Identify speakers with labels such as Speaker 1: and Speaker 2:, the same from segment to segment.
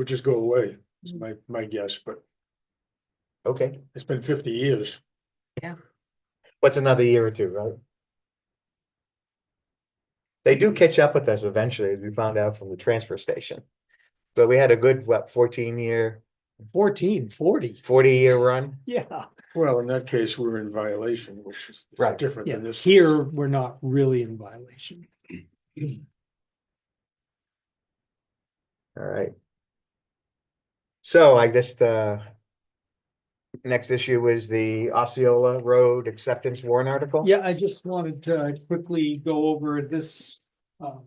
Speaker 1: would just go away, is my, my guess, but
Speaker 2: Okay,
Speaker 1: it's been fifty years.
Speaker 2: what's another year or two, right? They do catch up with us eventually, as we found out from the transfer station. But we had a good, what, fourteen year,
Speaker 3: 14, 40.
Speaker 2: forty year run?
Speaker 3: Yeah,
Speaker 1: Well, in that case, we're in violation, which is is
Speaker 2: Right.
Speaker 1: different
Speaker 3: yeah.
Speaker 1: than this.
Speaker 3: Here, we're not really in violation.
Speaker 2: All right. So I guess the next issue is the Osceola Road acceptance warrant article?
Speaker 3: Yeah, I just wanted to quickly go over this. um,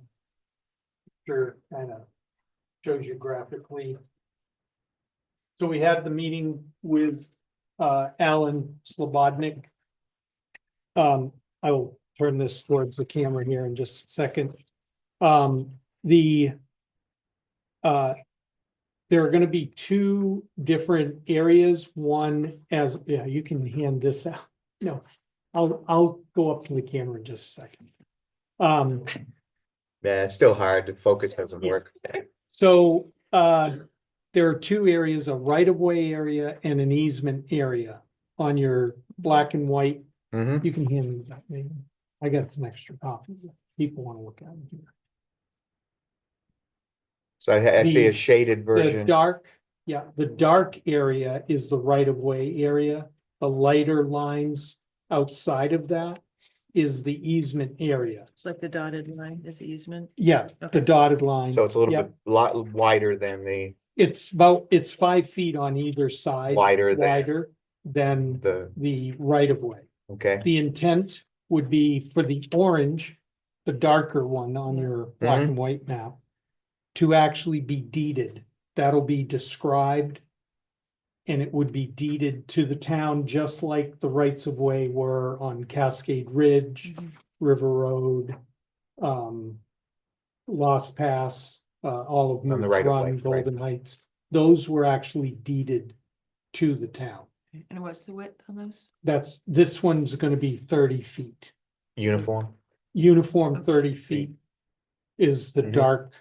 Speaker 3: Sure, kind of shows you graphically. So we had the meeting with uh, Alan Slobodnik. Um, I will turn this towards the camera here in just a second. Um, the uh, there are gonna be two different areas, one as, yeah, you can hand this out. No, I'll, I'll go up to the camera in just a second. Um,
Speaker 2: Yeah, it's still hard. The focus doesn't
Speaker 3: Yeah.
Speaker 2: work.
Speaker 3: so, uh, there are two areas, a right-of-way area and an easement area on your black and white.
Speaker 2: hmm
Speaker 3: You can hand these out, maybe. I got some extra copies. if People want to look at them here.
Speaker 2: So I, I see
Speaker 3: The-
Speaker 2: a shaded
Speaker 3: The
Speaker 2: version.
Speaker 3: dark, yeah, the dark area is the right-of-way area. The lighter lines outside of that is the easement area.
Speaker 4: It's like the dotted line is the easement.
Speaker 3: Yeah, the
Speaker 4: Okay.
Speaker 3: dotted line.
Speaker 2: So it's a little
Speaker 3: yeah.
Speaker 2: bit, lot wider than the,
Speaker 3: It's about, it's five feet on either side.
Speaker 2: wider than
Speaker 3: Wider than
Speaker 2: the,
Speaker 3: the right of way.
Speaker 2: okay,
Speaker 3: The intent would be for the orange, the darker one on your black
Speaker 2: Mm-hmm.
Speaker 3: and white map. To actually be deeded, that'll be described. And it would be deeded to the town, just like the rights of way were on Cascade Ridge, River Road. Um. Lost Pass, uh, all of
Speaker 2: the
Speaker 3: them,
Speaker 2: right of way,
Speaker 3: Run,
Speaker 2: right.
Speaker 3: Golden Heights, those were actually deeded to the town.
Speaker 4: And what's the width on those?
Speaker 3: That's, this one's gonna be thirty feet.
Speaker 2: uniform.
Speaker 3: Uniform
Speaker 4: Okay.
Speaker 3: thirty feet is the
Speaker 2: Mhm.
Speaker 3: dark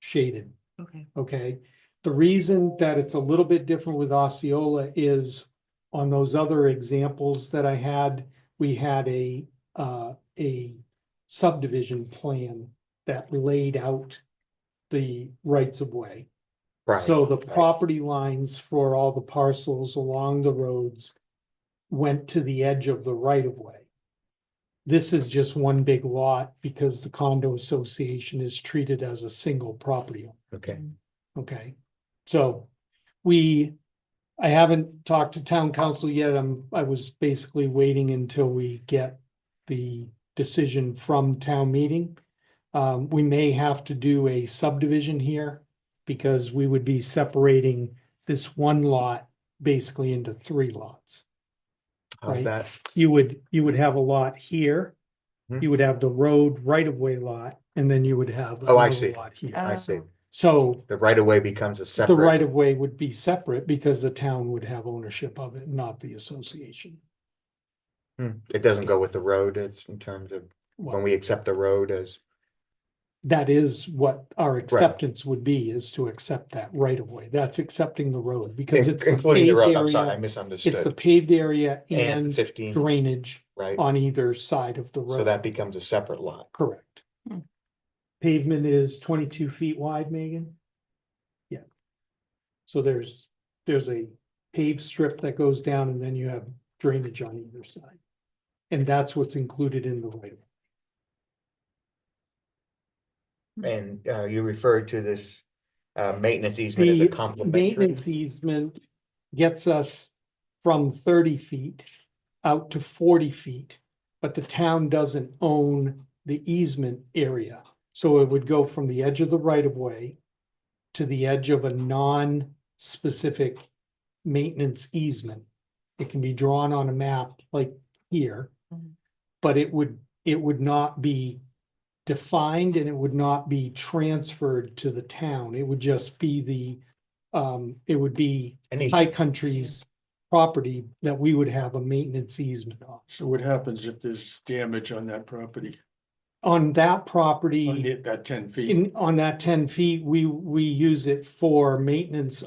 Speaker 3: shaded,
Speaker 4: Okay.
Speaker 3: okay? The reason that it's a little bit different with Osceola is on those other examples that I had, we had a, uh, a subdivision plan that laid out the rights of way.
Speaker 2: Right.
Speaker 3: So the
Speaker 2: right.
Speaker 3: property lines for all the parcels along the roads went to the edge of the right of way. This is just one big lot because the condo association is treated as a single property, owner,
Speaker 2: Okay,
Speaker 3: okay? So we, I haven't talked to town council yet. I'm, I was basically waiting until we get the decision from town meeting. Um, we may have to do a subdivision here because we would be separating this one lot basically into three lots.
Speaker 2: how's
Speaker 3: right.
Speaker 2: that?
Speaker 3: You would, you would have a lot here.
Speaker 2: Hmm.
Speaker 3: You would have the road right-of-way lot, and then you would have.
Speaker 2: Oh, I
Speaker 3: another
Speaker 2: see.
Speaker 3: lot here.
Speaker 2: I see.
Speaker 4: Oh.
Speaker 3: So
Speaker 2: The right of way becomes a
Speaker 3: the
Speaker 2: separate,
Speaker 3: right-of-way would be separate because the town would have ownership of it, not the association.
Speaker 2: Hmm, it doesn't go with the road as in terms of when
Speaker 3: Well,
Speaker 2: we accept the road as,
Speaker 3: that is what our acceptance would be, is to accept that right-of-way. That's accepting the road because it's. the
Speaker 2: including the
Speaker 3: paved
Speaker 2: road. I'm sorry, I
Speaker 3: area- It's the
Speaker 2: misunderstood.
Speaker 3: paved area
Speaker 2: And
Speaker 3: and
Speaker 2: fifteen,
Speaker 3: drainage
Speaker 2: right?
Speaker 3: on either side of the road.
Speaker 2: So that becomes a separate lot.
Speaker 3: Correct.
Speaker 4: Hmm.
Speaker 3: Pavement is twenty-two feet wide, Megan? Yeah. So there's, there's a paved strip that goes down and then you have drainage on either side. And that's what's included in the right. of-
Speaker 2: And, uh, you referred to this, uh, maintenance easement as a
Speaker 3: The
Speaker 2: complementary.
Speaker 3: maintenance easement gets us from thirty feet out to forty feet. But the town doesn't own the easement area, so it would go from the edge of the right of way. To the edge of a non-specific maintenance easement. It can be drawn on a map like here.
Speaker 4: Mhm.
Speaker 3: But it would, it would not be defined and it would not be transferred to the town. It would just be the, um, it would be
Speaker 2: An easement.
Speaker 3: High Country's property that we would have a maintenance easement on.
Speaker 1: So what happens if there's damage on that property?
Speaker 3: on that property.
Speaker 1: on the- that ten feet.
Speaker 3: In, on that ten feet, we, we use it for maintenance